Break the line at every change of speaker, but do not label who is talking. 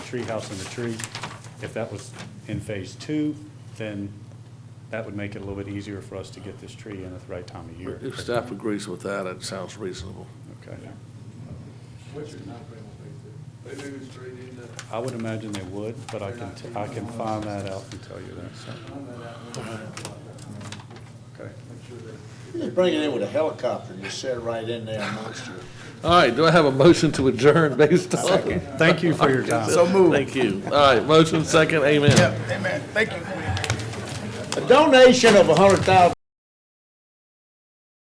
tree house in the tree. If that was in phase two, then that would make it a little bit easier for us to get this tree in at the right time of year.
If staff agrees with that, it sounds reasonable.
Okay.
What's your timeframe on phase two? They move it straight into,
I would imagine they would, but I can, t- I can find that out and tell you that, so,
on that,
okay.
make sure that.
You just bring it in with a helicopter, and just set it right in there amongst you.
All right, do I have a motion to adjourn based on?
Thank you for your time.
So moved. Thank you. All right, motion second, amen.
A donation of a hundred thousand